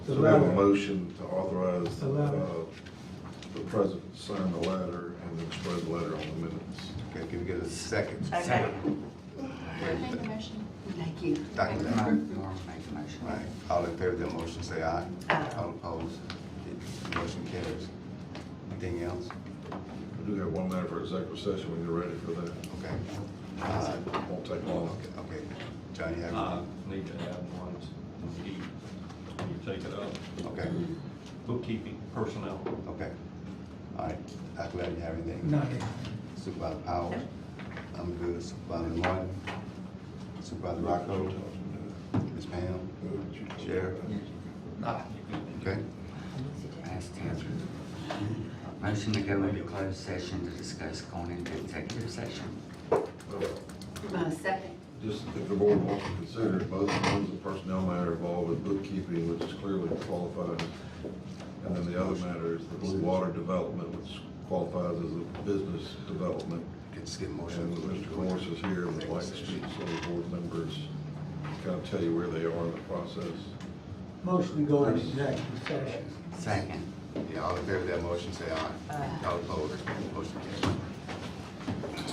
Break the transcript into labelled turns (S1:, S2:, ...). S1: So we have a
S2: Allow-
S1: motion to authorize,
S2: Allow-
S1: uh, the president to sign the letter and then spread the letter on the minutes.
S3: Okay, can we get a second?
S4: Second.
S5: I made the motion.
S4: Thank you.
S3: Thank you.
S4: Norm. Norm made the motion.
S3: All right, all in favor of the motion, say aye.
S4: Aye.
S3: All opposed? The Motion carries. Anything else?
S1: We do have one matter for executive session when you're ready for that.
S3: Okay. Uh,
S1: Won't take long.
S3: Okay, okay. John, you have?
S6: I Uh, need to add one, you, you take it up,
S3: Okay,
S6: bookkeeping personnel.
S3: okay. All right, I'm glad you have anything.
S2: Not yet.
S3: Supervisor Powell? I'm good. Supervisor Martin? Supervisor Rocco? Ms. Pam? Sheriff? Okay,
S7: Motion to go into closed session to discuss going into executive session.
S1: Well,
S4: Uh, second.
S1: Just if the board wants to consider, it, both of those, the personnel matter involved with bookkeeping, which is clearly qualified. And then the other matter is the Blue Water Development, which qualifies as a business development.
S3: can just get a motion.
S1: And Mr. Morris is here, and would like to speak, so the board members kind of tell you where they are in the process.
S2: Motion to go into executive session.
S7: Second.
S3: Yeah, all in favor of that motion, say aye. All opposed? Motion carries.